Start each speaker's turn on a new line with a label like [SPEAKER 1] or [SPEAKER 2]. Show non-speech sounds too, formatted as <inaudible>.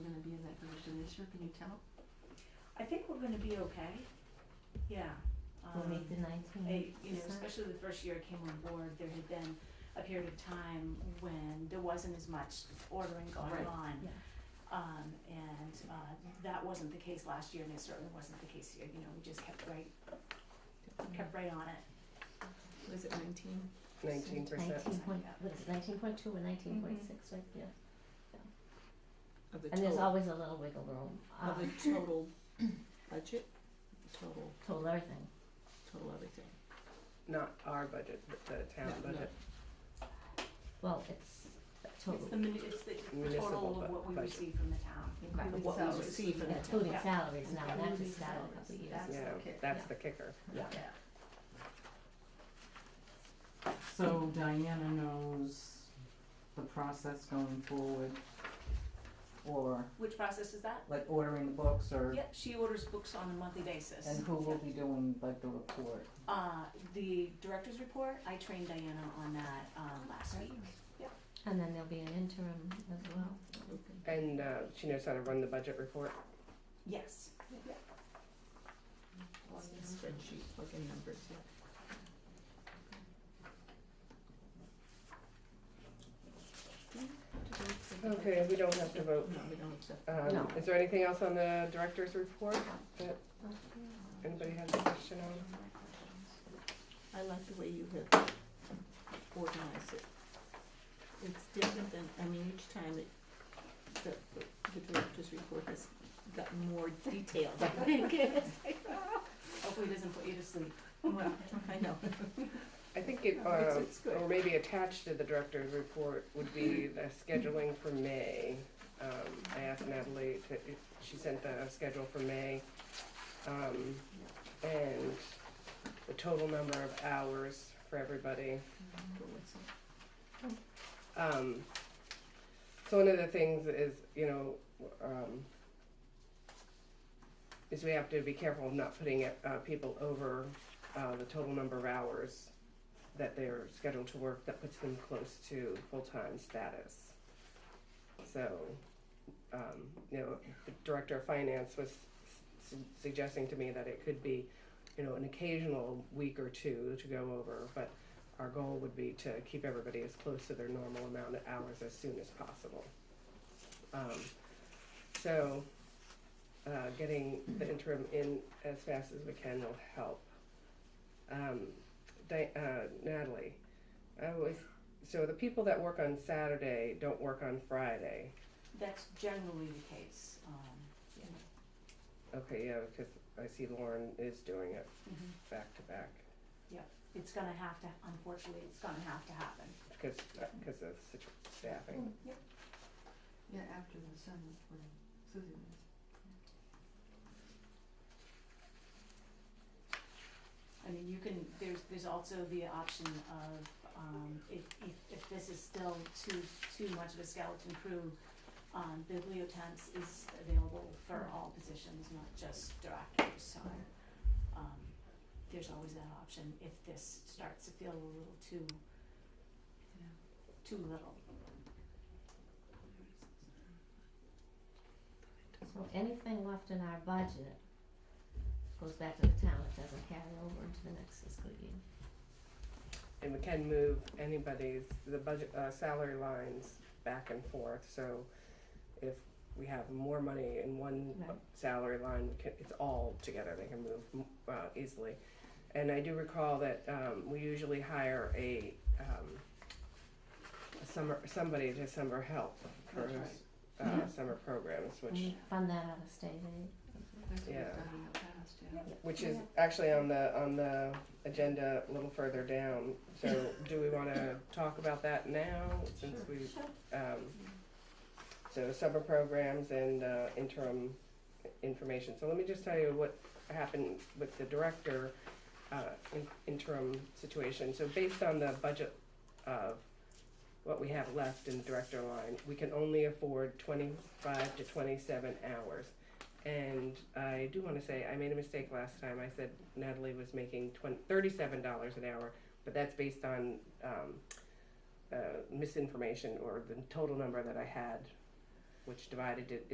[SPEAKER 1] year, can you tell?
[SPEAKER 2] I think we're gonna be okay, yeah.
[SPEAKER 3] We'll
[SPEAKER 2] Um,
[SPEAKER 3] make the nineteenth.
[SPEAKER 2] I- you know, especially the first year I came on board, there had been a period of time when there wasn't as much ordering going
[SPEAKER 1] Right.
[SPEAKER 2] on.
[SPEAKER 3] Yeah.
[SPEAKER 2] Um, and, uh, that wasn't the case last year and it certainly wasn't the case here, you know, we just kept right, kept right on it.
[SPEAKER 4] Was it nineteen?
[SPEAKER 5] nineteen percent.
[SPEAKER 3] Nineteen point, what is nineteen point two or nineteen
[SPEAKER 2] Mm-hmm.
[SPEAKER 3] point six, right, yeah.
[SPEAKER 4] Of the
[SPEAKER 3] And there's
[SPEAKER 4] total,
[SPEAKER 3] always a little wiggle room, uh,
[SPEAKER 4] of the total budget, total,
[SPEAKER 3] total everything.
[SPEAKER 4] total everything.
[SPEAKER 5] Not our budget, but the town
[SPEAKER 4] No, no.
[SPEAKER 5] budget.
[SPEAKER 3] Well, it's a
[SPEAKER 2] It's
[SPEAKER 3] total,
[SPEAKER 2] the mini, it's the
[SPEAKER 5] Municipal
[SPEAKER 2] total
[SPEAKER 5] bu-
[SPEAKER 2] of what we
[SPEAKER 5] budget.
[SPEAKER 2] receive from the town.
[SPEAKER 3] Right.
[SPEAKER 2] including
[SPEAKER 4] What we
[SPEAKER 2] salaries.
[SPEAKER 4] receive from the town.
[SPEAKER 3] including
[SPEAKER 2] Yeah.
[SPEAKER 3] salaries now, and that
[SPEAKER 1] Including
[SPEAKER 3] just started a couple
[SPEAKER 1] salaries,
[SPEAKER 3] of years
[SPEAKER 1] that's-
[SPEAKER 3] ago.
[SPEAKER 5] Yeah,
[SPEAKER 1] the kick.
[SPEAKER 5] that's
[SPEAKER 3] Yeah.
[SPEAKER 5] the kicker.
[SPEAKER 3] Yeah.
[SPEAKER 2] Yeah.
[SPEAKER 1] So Diana knows the process going forward for
[SPEAKER 2] Which process is that?
[SPEAKER 1] like ordering the books or,
[SPEAKER 2] Yep, she orders books on a monthly basis.
[SPEAKER 1] and who will be doing like the report?
[SPEAKER 2] Uh, the director's report, I trained Diana on that, um, last week.
[SPEAKER 3] And then there'll be an interim as well.
[SPEAKER 5] And uh, she knows how to run the budget report.
[SPEAKER 2] Yes.
[SPEAKER 4] Spreadsheet, plug in numbers, yeah.
[SPEAKER 5] Okay, we don't have to
[SPEAKER 4] No,
[SPEAKER 5] vote.
[SPEAKER 4] we don't accept.
[SPEAKER 5] Um,
[SPEAKER 3] No.
[SPEAKER 5] is there anything else on the director's report that anybody has a question on?
[SPEAKER 4] I like the way you have organized it. It's different than, I mean, each time it, the, the director's report has got more detailed, I think.
[SPEAKER 2] Hopefully it doesn't put you to sleep.
[SPEAKER 4] <laughs> Well, I <laughs> know. Um, oh.
[SPEAKER 5] I think it,
[SPEAKER 4] No, it's-
[SPEAKER 5] uh,
[SPEAKER 4] it's good.
[SPEAKER 5] or maybe attached to the director's report would be the scheduling for May. Um, I asked Natalie to, if she sent the schedule for May. Um, and the total number of hours for everybody.
[SPEAKER 4] But what's it?
[SPEAKER 5] Um, so one of the things is, you know, um, is we have to be careful of not putting uh, people over uh, the total number of hours that they're scheduled to work that puts them close to full-time status. So, um, you know, the director of finance was su- suggesting to me that it could be, you know, an occasional week or two to go over, but our goal would be to keep everybody as close to their normal amount of hours as soon as possible. Um, so, uh, getting the interim in as fast as we can will help. Um, Di- uh, Natalie, I always, so the people that work on Saturday don't work on Friday.
[SPEAKER 2] That's generally the case, um.
[SPEAKER 5] Okay, yeah, because I see Lauren is doing it back to back
[SPEAKER 2] It's gonna have to, unfortunately, it's gonna have to happen.
[SPEAKER 5] because, because uh, of situ- staffing.
[SPEAKER 1] Yeah, after the summer, when Susan is.
[SPEAKER 2] I mean, you can, there's, there's also the option of, um, if, if, if this is still too, too much of a skeleton crew, um, bibliotemps is available for all positions, not just directors, so, um, there's always that option if this starts to feel a little too, too little.
[SPEAKER 3] So anything left in our budget goes back to the town, it doesn't carry over into the next fiscal year.
[SPEAKER 5] And we can move anybody's, the budget, uh, salary lines back and forth, so if we have more money in one
[SPEAKER 3] Right.
[SPEAKER 5] salary line, we can, it's all together, they can move, uh, easily. And I do recall that, um, we usually hire a, um, a summer, somebody to summer help for,
[SPEAKER 1] That's Mm-hmm.
[SPEAKER 5] his, uh, summer programs, which
[SPEAKER 4] Mm.
[SPEAKER 3] We fund that out of state aid.
[SPEAKER 1] That's what
[SPEAKER 5] Yeah.
[SPEAKER 1] we've done in the past, yeah.
[SPEAKER 5] which is actually on the on the agenda a little further down. So do we want to talk about that now since
[SPEAKER 1] Sure.
[SPEAKER 5] we um, so summer programs and uh, interim information. So let me just tell you what happened with the director uh, in, interim situation. So based on the budget of what we have left in director line, we can only afford 25 to 27 hours. And I do want to say I made a mistake last time. I said Natalie was making 20, $37 an hour, but that's based on um, uh, misinformation or the total number that I had, which divided it